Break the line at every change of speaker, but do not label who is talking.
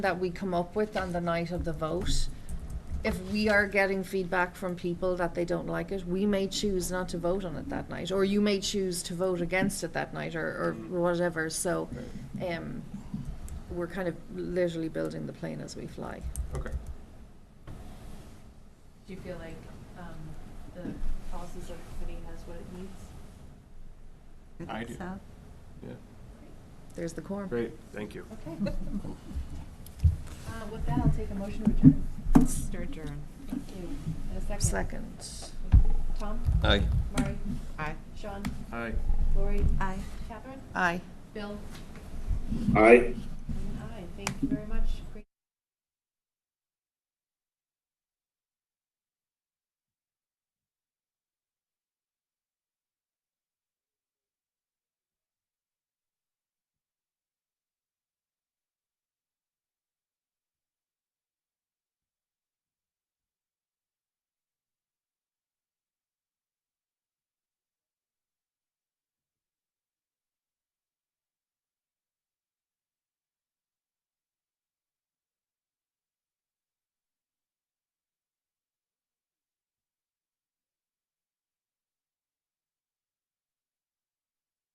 that we come up with on the night of the vote, if we are getting feedback from people that they don't like it, we may choose not to vote on it that night, or you may choose to vote against it that night, or, or whatever, so, um, we're kind of literally building the plane as we fly.
Okay.
Do you feel like um, the policy subcommittee has what it needs?
I do. Yeah.
There's the quorum.
Great. Thank you.
Okay. Uh, With that, I'll take a motion to adjourn.
Stir adjourn.
Thank you. And a second.
Second.
Tom?
Aye.
Mari?
Aye.
Sean?
Hi.
Lori?
Aye.
Catherine?
Aye.
Bill?
Aye.
And I. Thank you very much.